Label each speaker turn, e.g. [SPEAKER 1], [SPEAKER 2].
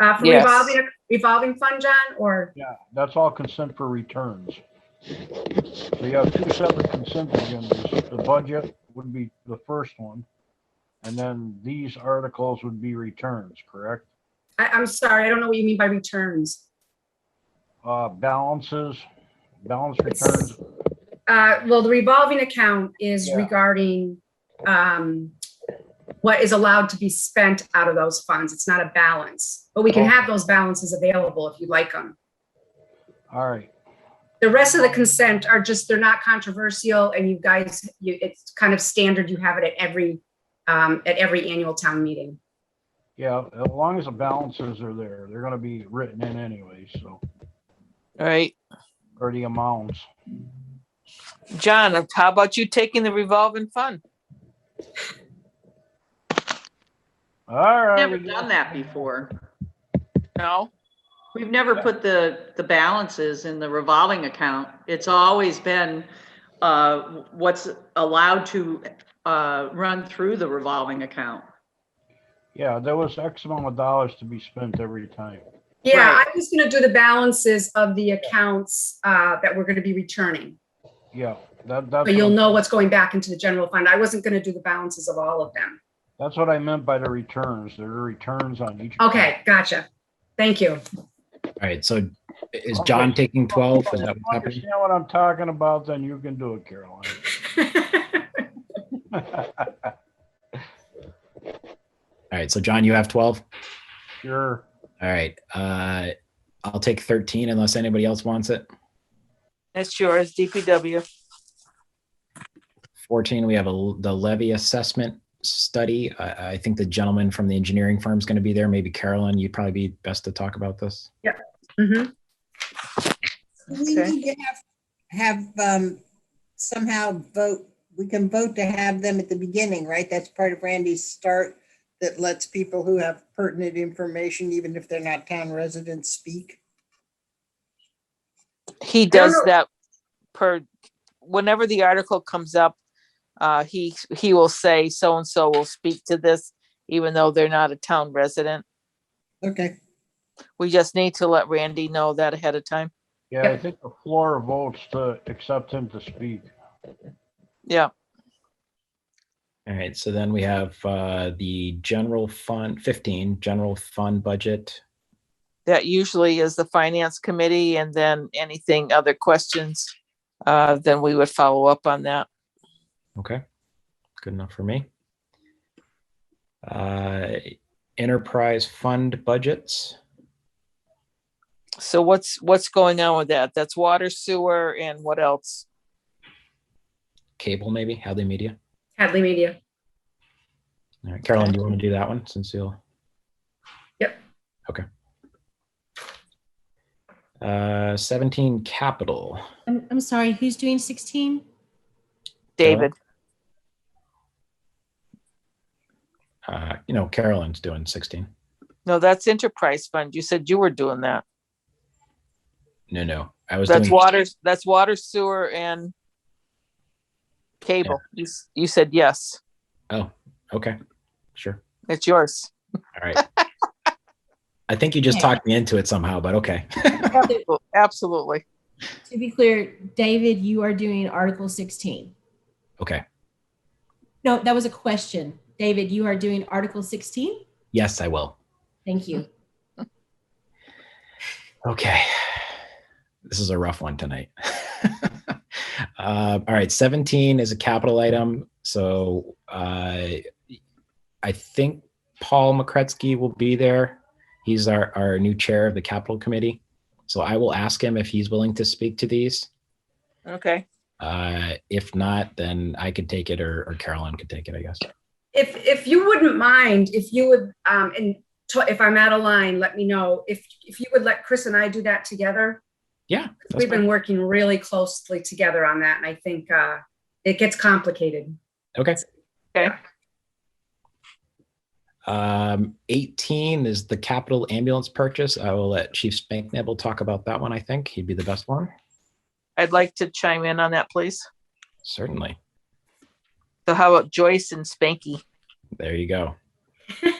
[SPEAKER 1] Uh, for
[SPEAKER 2] Yes.
[SPEAKER 1] revolving, revolving fund, John, or,
[SPEAKER 3] Yeah, that's all consent for returns. So you have two separate consent agendas. The budget would be the first one. And then these articles would be returns, correct?
[SPEAKER 1] I, I'm sorry, I don't know what you mean by returns.
[SPEAKER 3] Uh, balances, balance returns,
[SPEAKER 1] Uh, well, the revolving account is
[SPEAKER 3] Yeah.
[SPEAKER 1] regarding, um, what is allowed to be spent out of those funds. It's not a balance, but we can have those balances available if you like them.
[SPEAKER 3] all right.
[SPEAKER 1] The rest of the consent are just, they're not controversial and you guys, you, it's kind of standard. You have it at every, um, at every annual town meeting.
[SPEAKER 3] Yeah, as long as the balances are there, they're gonna be written in anyway, so,
[SPEAKER 2] All right,
[SPEAKER 3] or the amounts.
[SPEAKER 2] John, how about you taking the revolving fund?
[SPEAKER 3] All right.
[SPEAKER 4] Never done that before.
[SPEAKER 2] No?
[SPEAKER 4] We've never put the, the balances in the revolving account. It's always been uh, what's allowed to uh, run through the revolving account.
[SPEAKER 3] Yeah, there was X amount of dollars to be spent every time.
[SPEAKER 1] Yeah,
[SPEAKER 4] Right.
[SPEAKER 1] I'm just gonna do the balances of the accounts, uh, that we're gonna be returning.
[SPEAKER 3] Yeah, that, that's.
[SPEAKER 1] But you'll
[SPEAKER 3] what-
[SPEAKER 1] know what's going back into the general fund. I wasn't gonna do the balances of all of them.
[SPEAKER 3] That's what I meant by the returns. There are returns on each.
[SPEAKER 1] Okay, gotcha. Thank you.
[SPEAKER 5] All right, so is John taking twelve? Is that what's happening?
[SPEAKER 3] Understand what I'm talking about, then you can do it, Caroline.
[SPEAKER 5] All right, so John, you have twelve?
[SPEAKER 3] Sure.
[SPEAKER 5] All right, uh, I'll take thirteen unless anybody else wants it.
[SPEAKER 2] That's yours, DPW.
[SPEAKER 5] Fourteen, we have a, the levy assessment study. I, I think the gentleman from the engineering firm is going to be there. Maybe Carolyn, you'd probably be best to talk about this.
[SPEAKER 1] Mhm.
[SPEAKER 6] We
[SPEAKER 2] Okay.
[SPEAKER 6] need to have, have um, somehow vote, we can vote to have them at the beginning, right? That's part of Randy's start that lets people who have pertinent information, even if they're not town residents, speak.
[SPEAKER 2] He
[SPEAKER 1] don't
[SPEAKER 2] does
[SPEAKER 1] know-
[SPEAKER 2] that per, whenever the article comes up, uh, he, he will say so-and-so will speak to this, even though they're not a town resident.
[SPEAKER 6] Okay,
[SPEAKER 2] We just need to let Randy know that ahead of time.
[SPEAKER 3] Yeah, I think the floor votes to accept him to speak.
[SPEAKER 2] Yeah,
[SPEAKER 5] All right, so then we have, uh, the general fund, fifteen, general fund budget.
[SPEAKER 2] that usually is the finance committee and then anything other questions, uh, then we would follow up on that.
[SPEAKER 5] Okay, good enough for me. Uh, enterprise fund budgets.
[SPEAKER 2] So what's, what's going on with that? That's water, sewer, and what else?
[SPEAKER 5] cable, maybe Hadley Media.
[SPEAKER 1] Hadley Media.
[SPEAKER 5] All right, Carolyn, do you want to do that one since you'll?
[SPEAKER 1] Yep.
[SPEAKER 5] Okay. Uh, seventeen capital.
[SPEAKER 7] I'm, I'm sorry, who's doing 16?
[SPEAKER 2] David,
[SPEAKER 5] Uh, you know, Carolyn's doing sixteen.
[SPEAKER 2] no, that's enterprise fund. You said you were doing that.
[SPEAKER 5] No, no, I was.
[SPEAKER 2] That's
[SPEAKER 5] doing-
[SPEAKER 2] water, that's water, sewer and cable. You, s- you said yes.
[SPEAKER 5] Oh, okay, sure.
[SPEAKER 2] It's yours.
[SPEAKER 5] All right. I think you just talked me into it somehow, but okay.
[SPEAKER 2] Absolutely.
[SPEAKER 7] To be clear, David, you are doing Article 16.
[SPEAKER 5] Okay.
[SPEAKER 7] No, that was a question. David, you are doing Article 16?
[SPEAKER 5] Yes, I will.
[SPEAKER 7] Thank you.
[SPEAKER 5] Okay. This is a rough one tonight. uh, all right. 17 is a capital item. So uh, I think Paul McCretsky will be there. He's our, our new chair of the capital committee. So I will ask him if he's willing to speak to these.
[SPEAKER 2] Okay.
[SPEAKER 5] Uh, if not, then I could take it or, or Carolyn could take it, I guess.
[SPEAKER 1] If, if you wouldn't mind, if you would, um, and to- if I'm out of line, let me know. If, if you would let Chris and I do that together.
[SPEAKER 5] Yeah. that's
[SPEAKER 1] We've
[SPEAKER 5] fine.
[SPEAKER 1] been working really closely together on that and I think, uh, it gets complicated.
[SPEAKER 5] Okay.
[SPEAKER 2] Okay.
[SPEAKER 5] Um, 18 is the capital ambulance purchase. I will let Chief Spanknebel talk about that one. I think he'd be the best one.
[SPEAKER 2] I'd like to chime in on that, please.
[SPEAKER 5] Certainly.
[SPEAKER 2] So how about Joyce and Spanky?
[SPEAKER 5] There you go.